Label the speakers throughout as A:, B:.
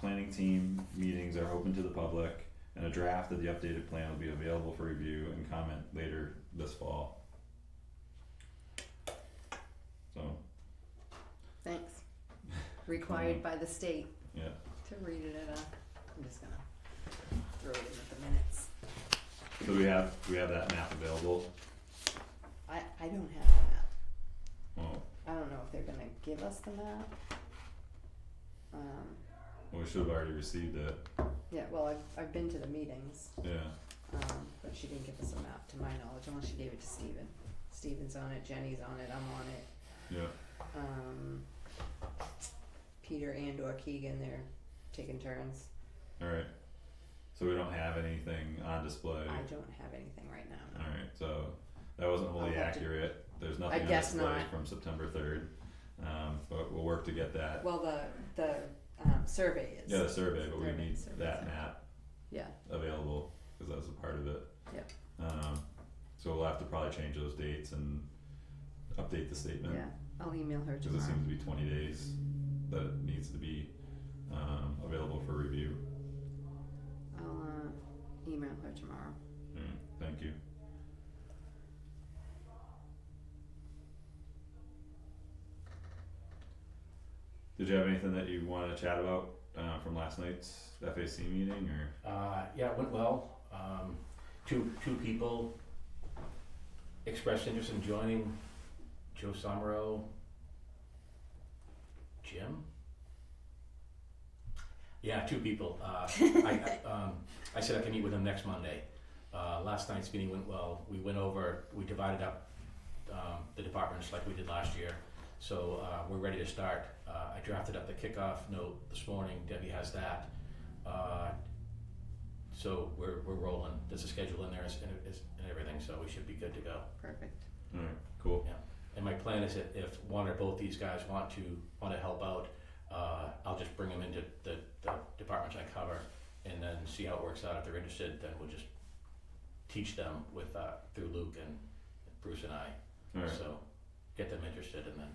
A: planning team meetings are open to the public, and a draft of the updated plan will be available for review and comment later this fall. So,
B: Thanks. Required by the state
A: yeah,
B: to read it at a, I'm just gonna throw it in at the minutes.
A: so we have, we have that map available,
B: I, I don't have the map.
A: well,
B: I don't know if they're gonna give us the map. Um,
A: we should have already received it,
B: yeah, well, I've, I've been to the meetings,
A: yeah,
B: um, but she didn't give us a map to my knowledge, unless she gave it to Steven. Steven's on it, Jenny's on it, I'm on it,
A: yeah,
B: um, Peter and or Keegan, they're taking turns.
A: alright. So we don't have anything on display,
B: I don't have anything right now, no.
A: alright, so that wasn't
B: I'll
A: wholly
B: have to-
A: accurate, there's nothing on
B: guess
A: display
B: not.
A: from September third. Um, but we'll work to get that,
B: Well, the, the, um, survey is.
A: yeah, the survey, but we
B: Survey,
A: need
B: survey,
A: that
B: survey.
A: map
B: Yeah,
A: available, cause that was a part of it.
B: Yep.
A: Um, so we'll have to probably change those dates and update the statement,
B: yeah, I'll email her
A: cause it
B: tomorrow.
A: seems to be twenty days that it needs to be, um, available for review.
B: I'll, uh, email her tomorrow.
A: Mm, thank you. Did you have anything that you wanna chat about, uh, from last night's FAC meeting, or,
C: Uh, yeah, it went well. Um, two, two people expressed interest in joining Joe Somro, Jim? Yeah, two people. Uh, I, I, um, I said I can meet with them next Monday. Uh, last night's meeting went well. We went over, we divided up um, the departments like we did last year. So uh, we're ready to start. Uh, I drafted up the kickoff note this morning. Debbie has that. Uh, so we're, we're rolling. There's a schedule in there and, it's- and everything, so we should be good to go.
B: Perfect.
A: alright, cool,
C: And my plan is that if one or both these guys want to, want to help out, uh, I'll just bring them into the, the departments I cover and then see how it works out. If they're interested, then we'll just teach them with, uh, through Luke and Bruce and I.
A: alright.
C: So get them interested and then,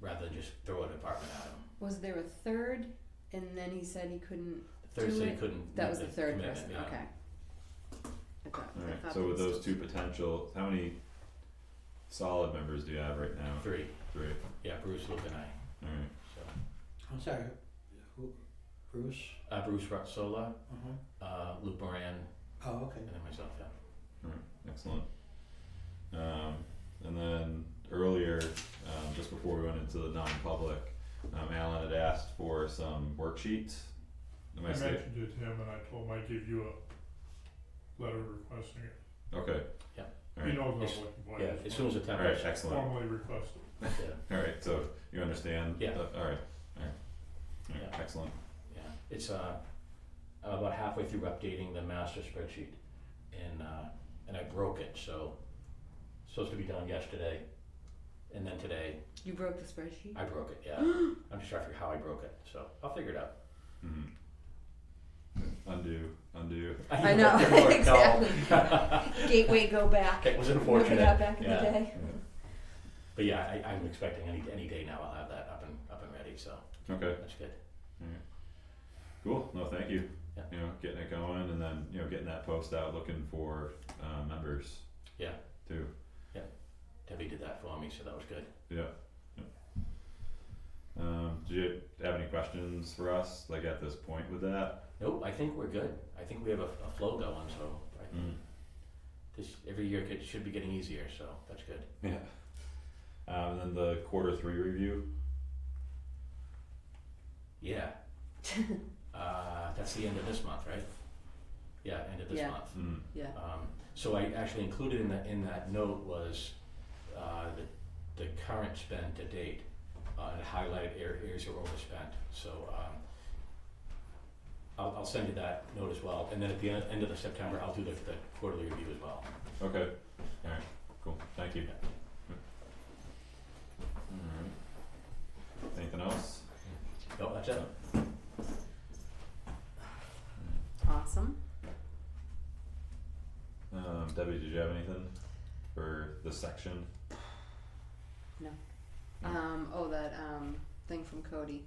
C: rather than just throw a department at them.
B: Was there a third, and then he said he couldn't,
C: Thursday
B: it.
C: couldn't.
B: that
C: meet
B: was the third
C: commitment,
B: person,
C: yeah.
B: okay. I thought, I
A: Alright,
B: thought
A: so
B: there
A: with
B: was-
A: those two potential, how many solid members do you have right now?
C: Three,
A: Three,
C: yeah, Bruce, Luke and I,
A: alright,
C: so.
D: I'm sorry, who, Bruce?
C: Uh, Bruce Rutzola,
D: Uh-huh.
C: uh, Luke Moran,
D: Oh, okay.
C: and then myself, yeah.
A: excellent. Um, and then earlier, um, just before we went into the non-public, um, Alan had asked for some worksheets. Am
E: I
A: I saying,
E: mentioned it to him and I told him I'd give you a letter requesting it.
A: okay,
E: He
A: alright,
E: knows what
C: It's-
E: I'm looking for.
C: Yeah,
E: I
C: as
E: just
C: soon as the
A: alright,
C: template's,
A: excellent,
E: Formally requested.
C: yeah,
A: alright, so you understand?
C: Yeah.
A: Uh, Alright, alright, alright,
C: Yeah.
A: excellent,
C: yeah. It's, uh, I'm about halfway through updating the master spreadsheet and, uh, and I broke it, so it's supposed to be done yesterday. And then today,
B: You broke the spreadsheet?
C: I broke it, yeah. I'm just trying to figure how I broke it, so I'll figure it out.
A: mhm. Undo, undo,
B: I know,
C: Didn't work, no.
B: exactly. Gateway, go back.
C: It was
B: Look it up
C: unfortunate,
B: back in the
C: yeah.
B: day.
C: But yeah, I, I'm expecting any, any day now I'll have that up and, up and ready, so
A: okay.
C: that's good.
A: Cool, no, thank you.
C: Yeah.
A: You know, getting it going and then, you know, getting that post out, looking for, uh, members.
C: Yeah.
A: Too,
C: Debbie did that for me, so that was good.
A: yeah, yeah. Um, do you have any questions for us, like at this point with that?
C: Nope, I think we're good. I think we have a, a flow going, so I
A: Mm,
C: This every year could, should be getting easier, so that's good.
A: yeah. Um, and then the quarter three review,
C: Yeah. uh, that's the end of this month, right? Yeah, end of this
B: Yeah.
C: month.
A: mm,
B: Yeah,
C: Um, so I actually included in that in that note was uh, the the current spend to date uh, and highlighted ar- areas that were overspent. So um, I'll, I'll send you that note as well, and then at the end, end of the September, I'll do the, the quarterly review as well.
A: okay, alright, cool, thank you. Alright, anything else?
C: No, that's it.
B: awesome.
A: Um, Debbie, did you have anything for this section?
B: Um, oh, that, um, thing from Cody,